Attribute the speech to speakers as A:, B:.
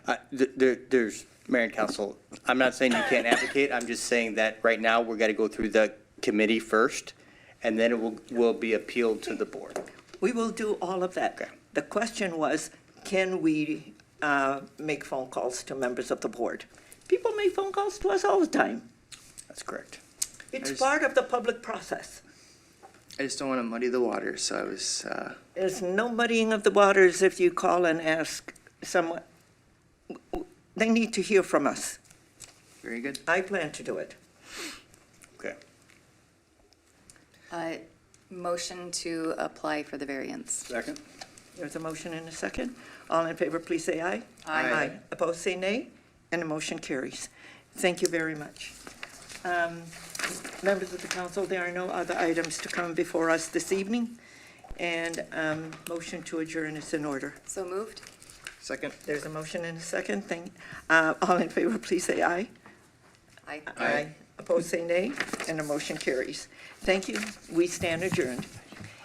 A: I- th- There, there's, Mayor and Council, I'm not saying you can't advocate, I'm just saying that right now, we're gonna go through the committee first, and then it will, will be appealed to the board.
B: We will do all of that.
A: Okay.
B: The question was, can we uh, make phone calls to members of the board? People make phone calls to us all the time.
A: That's correct.
B: It's
C: There's-
B: part of the public process.
C: I just don't want to muddy the water, so I was, uh,
B: There's no muddying of the waters if you call and ask someone. They need to hear from us.
C: very good.
B: I plan to do it.
A: Okay.
D: Uh, Motion to apply for the variance.
A: Second?
B: There's a motion and a second. All in favor, please say aye.
C: Aye.
B: Opposed, say nay, and the motion carries. Thank you very much. Um, Members of the council, there are no other items to come before us this evening, and um, motion to adjourn is in order.
D: So moved?
C: Second?
B: There's a motion and a second. Thank, uh, all in favor, please say aye.
D: Aye.
B: Opposed, say nay, and the motion carries. Thank you. We stand adjourned.